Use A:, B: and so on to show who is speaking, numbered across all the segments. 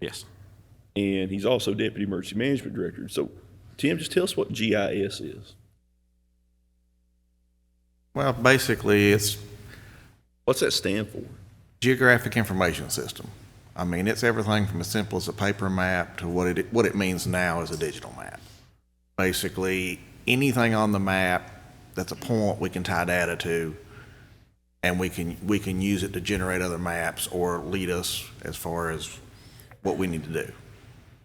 A: Yes.
B: and he's also deputy emergency management director. So, Tim, just tell us what GIS is.
C: Well, basically, it's
B: What's that stand for?
C: geographic information system. I mean, it's everything from as simple as a paper map to what it, what it means now as a digital map. Basically, anything on the map that's a point we can tie data to, and we can, we can use it to generate other maps or lead us as far as what we need to do.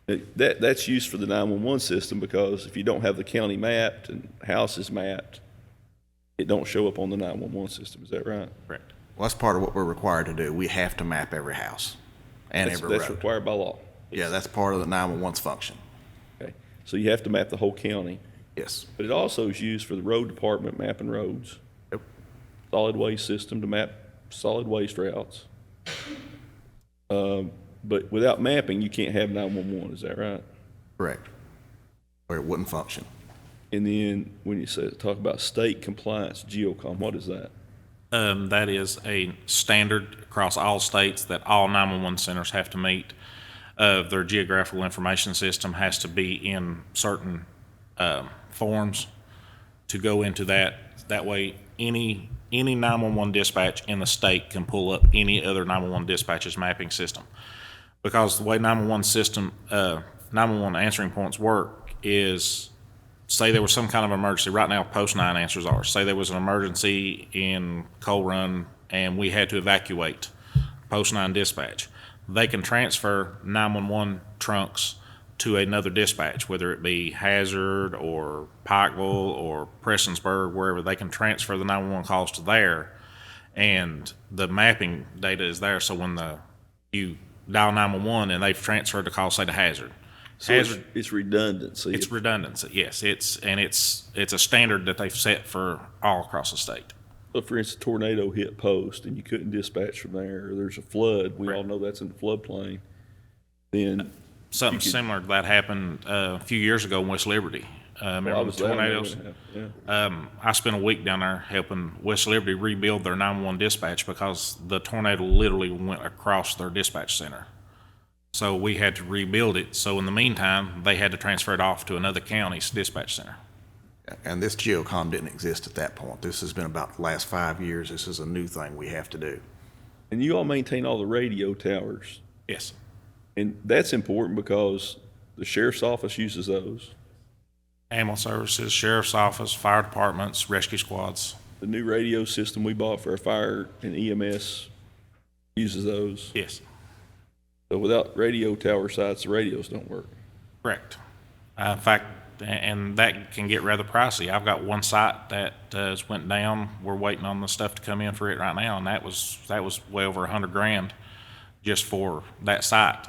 B: It- That, that's used for the 911 system because if you don't have the county mapped and houses mapped, it don't show up on the 911 system. Is that right?
A: Correct.
C: Well, that's part of what we're required to do. We have to map every house and
B: That's,
C: every
B: that's
C: road.
B: required by law.
C: Yeah, that's part of the 911's function.
B: Okay. So you have to map the whole county,
C: Yes.
B: but it also is used for the road department mapping roads,
C: Yep.
B: solid waste system to map solid waste routes. Um, but without mapping, you can't have 911. Is that right?
C: Correct. Or it wouldn't function.
B: And then when you say, talk about state compliance, GEOCOM, what is that?
A: Um, that is a standard across all states that all 911 centers have to meet. Uh, their geographical information system has to be in certain um, forms to go into that. That way, any any 911 dispatch in the state can pull up any other 911 dispatches mapping system. Because the way 911 system, uh, 911 answering points work is say there was some kind of emergency. Right now, post nine answers are. Say there was an emergency in Coal Run and we had to evacuate. Post nine dispatch. They can transfer 911 trunks to another dispatch, whether it be Hazard or Pikeville or Prestonsburg, wherever. They can transfer the 911 calls to there and the mapping data is there. So when the you dial 911 and they've transferred the call, say to Hazard.
B: So it's, it's redundancy.
A: It's redundancy, yes. It's, and it's, it's a standard that they've set for all across the state.
B: If, for instance, tornado hit post and you couldn't dispatch from there, or there's a flood, we all know that's in the floodplain, then
A: Something similar to that happened uh, a few years ago in West Liberty. Uh,
B: I
A: Remember the
B: was down there
A: tornadoes?
B: when it happened, yeah.
A: Um, I spent a week down there helping West Liberty rebuild their 911 dispatch because the tornado literally went across their dispatch center. So we had to rebuild it. So in the meantime, they had to transfer it off to another county's dispatch center.
C: And this GeoCom didn't exist at that point. This has been about the last five years. This is a new thing we have to do.
B: And you all maintain all the radio towers.
A: Yes.
B: And that's important because the sheriff's office uses those.
A: Ambulance services, sheriff's office, fire departments, rescue squads.
B: The new radio system we bought for our fire and EMS uses those.
A: Yes.
B: So without radio tower sites, the radios don't work.
A: Correct. Uh, in fact, a- and that can get rather pricey. I've got one site that uh, has went down. We're waiting on the stuff to come in for it right now, and that was that was way over a hundred grand just for that site.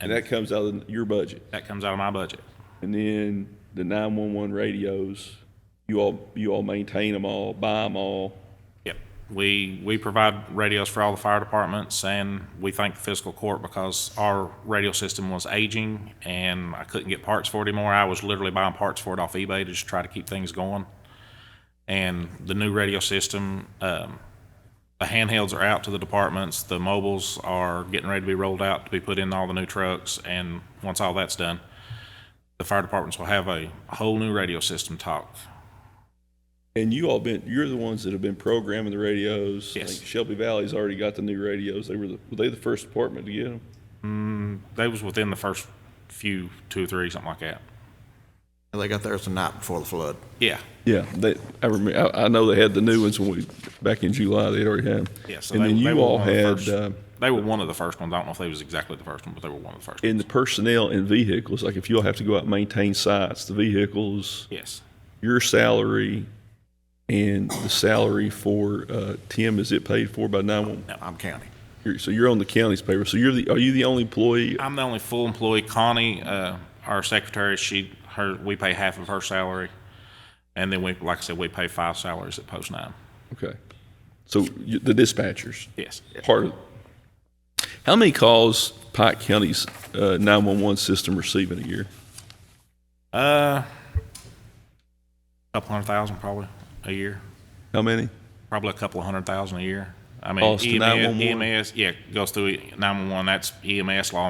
B: And that comes out of your budget.
A: That comes out of my budget.
B: And then the 911 radios, you all, you all maintain them all, buy them all.
A: Yep. We we provide radios for all the fire departments, and we thank the fiscal court because our radio system was aging, and I couldn't get parts for it anymore. I was literally buying parts for it off eBay to just try to keep things going. And the new radio system, um, the handhelds are out to the departments. The mobiles are getting ready to be rolled out to be put in all the new trucks, and once all that's done, the fire departments will have a whole new radio system talk.
B: And you all been, you're the ones that have been programming the radios. I
A: Yes.
B: think Shelby Valley's already got the new radios. They were, the- were they the first department to get them?
A: They was within the first few two or three, something like that.
C: And they got theirs the night before the flood.
A: Yeah,
B: Yeah, they, I remember, I, I know they had the new ones when we, back in July, they'd already had them.
A: yeah. So
B: And
A: they,
B: then
A: they
B: you
A: were
B: all
A: one of the
B: had,
A: first-
B: uh,
A: they were one of the first ones. I don't know if they was exactly the first one, but they were one of the first.
B: in the personnel and vehicles, like if you all have to go out and maintain sites, the vehicles,
A: yes,
B: your salary and the salary for, uh, Tim, is it paid for by 911?
C: I'm counting.
B: You're, so you're on the county's payroll. So you're the, are you the only employee?
A: I'm the only full employee. Connie, uh, our secretary, she her we pay half of her salary, and then we like I said we pay five salaries at Post Nine.
B: Okay. So you, the dispatchers,
A: Yes,
B: part of. How many calls Pike County's uh, 911 system receiving a year?
A: uh, couple hundred thousand probably a year.
B: How many?
A: probably a couple of hundred thousand a year. I mean, E
B: Calls to 911?
A: EMS, EMS, yeah, goes through 911. That's EMS, law